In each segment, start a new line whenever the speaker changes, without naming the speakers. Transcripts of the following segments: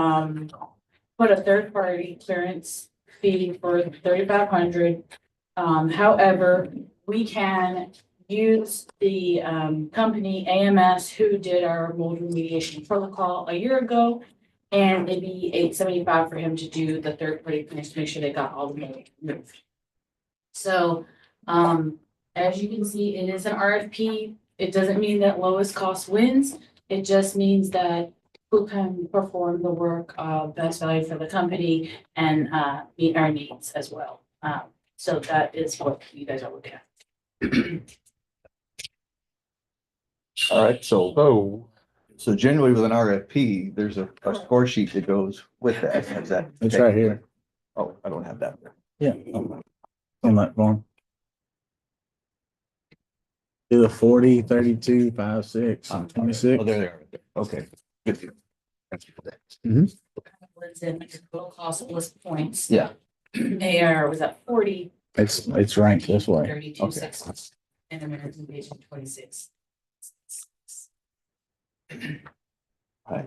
um, put a third party clearance fee for thirty-five hundred. Um, however, we can use the, um, company AMS who did our mold remediation protocol a year ago. And it'd be eight seventy-five for him to do the third party clearance, to make sure they got all the mold removed. So, um, as you can see, it is an RFP. It doesn't mean that lowest cost wins. It just means that who can perform the work of best value for the company and uh meet our needs as well. Um, so that is what you guys are looking at.
All right, so,
Oh,
so generally with an RFP, there's a, a score sheet that goes with that. Is that-
it's right here.
Oh, I don't have that.
Yeah. On that form. Do the forty, thirty-two, five, six,
Oh,
twenty-six.
Oh, there they are. right there. Okay. Good deal. Thank you for that.
Was in like the total cost plus points.
Yeah.
AR was at forty,
It's, it's ranked this way.
thirty-two,
okay.
sixty, and the minimum wage of twenty-six.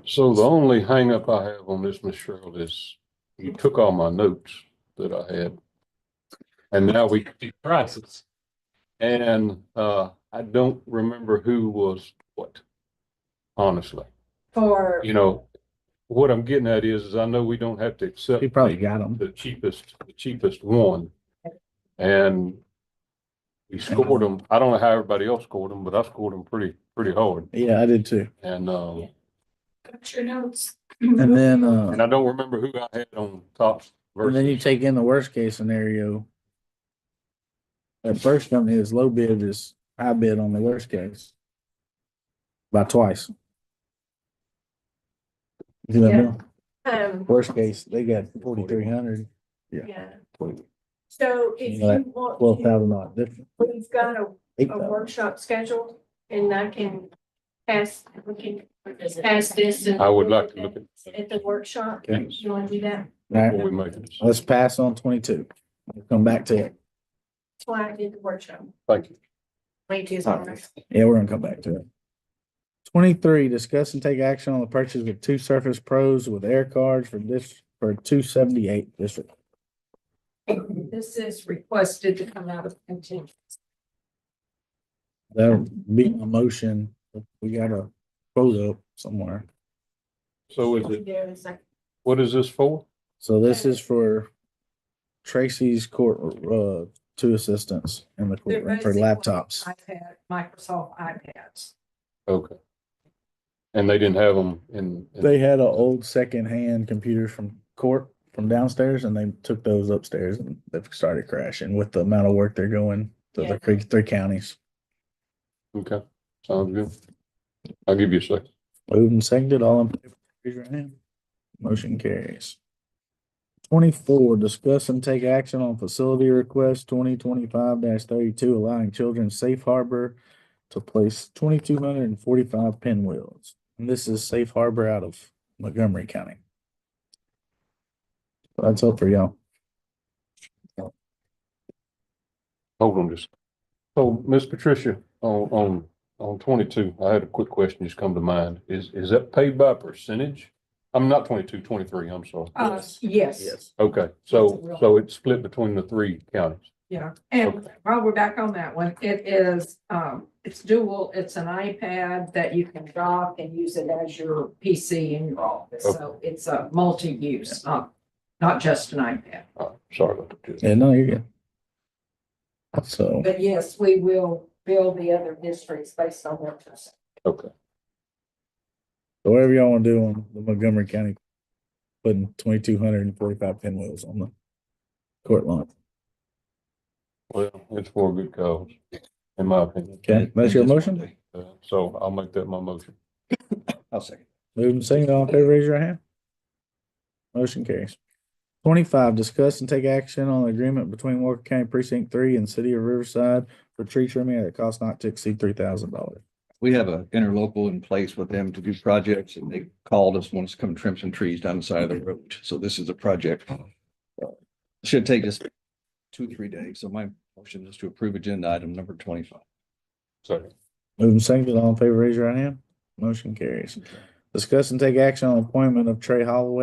So the only hangup I have on this, Miss Cheryl, is you took all my notes that I had. And now we see prices. And uh, I don't remember who was what, honestly.
For,
You know, what I'm getting at is, is I know we don't have to accept
He probably got them.
the cheapest, the cheapest one. And we scored them. I don't know how everybody else scored them, but I scored them pretty, pretty hard.
Yeah, I did too.
And um,
put your notes.
And then,
and
uh,
I don't remember who I had on top.
and
versus.
then you take in the worst case scenario. That first company is low bid is high bid on the worst case. By twice. Do that
Yeah.
now.
Um,
Worst case, they got forty-three hundred,
yeah.
Wait.
So if
Yeah,
you want,
twelve
to-
thousand dollar difference.
we've got a,
Eight
a
thousand.
workshop scheduled and I can pass, we can
Is it-
pass this. and-
I would like to look at
At the workshop,
Okay.
you wanna do that?
All
before
right,
we make it.
let's pass on twenty-two. We'll Come back to it.
That's why I did the workshop.
Thank you.
Twenty-two's
All right.
Yeah, we're gonna come back to it. Twenty-three, discuss and take action on the purchase of two Surface Pros with air cards for this, for two seventy-eight district.
This is requested to come out of contingent.
That'll be a motion. We got a quote up somewhere.
So is it,
There is a,
what is this for?
So this is for Tracy's court, uh, two assistants in the courtroom for laptops.
iPad, Microsoft iPads.
Okay. And they didn't have them in, in-
They had an old secondhand computer from court from downstairs and they took those upstairs and they've started crashing with the amount of work they're going to
Yeah.
the three, three counties.
okay, sounds good. I'll give you a second.
Moved and seconded, all in favor, raise your hand. Motion carries. Twenty-four, discuss and take action on facility request twenty twenty-five thirty-two, allowing children safe harbor to place twenty-two hundred and forty-five pinwheels. And this is safe harbor out of Montgomery County. That's up for y'all.
Hold on just. So, Miss Patricia, on, on, on twenty-two, I had a quick question just come to mind. Is, is that paid by percentage? I'm not 22, 23. twenty-three, I'm sorry.
Oh.
Uh, yes,
Okay, so, so it's split between the three counties.
yeah, and while we're back on that one, it is, um, it's dual, it's an iPad that you can dock and use it as your PC in your office, so it's a multi-use, not, not just an iPad.
Uh, sorry about that.
Yeah, no, you're good. So,
But yes, we will bill the other districts based on their percentage.
Okay,
whatever y'all wanna do on the Montgomery County, putting twenty-two hundred and forty-five pinwheels on the court lawn.
well, it's for a good cause, in my opinion.
Okay, that's your
Just one
motion?
day.
Uh, So I'll make that my motion.
I'll second.
Move and second, all in favor, raise your hand. Motion carries. Twenty-five, discuss and take action on the agreement between Walker County Precinct Three and City of Riverside for tree trimming at a cost not to exceed three thousand dollars.
We have an interlocal in place with them to do projects and they called us, wants to come trim some trees down the side of the road. So this is a project. Uh, Should take us two, three days. So my motion is to approve agenda item number twenty-five.
Second.
Move and second, all in favor, raise your hand. Motion carries. Discuss and take action on appointment of Trey Holloway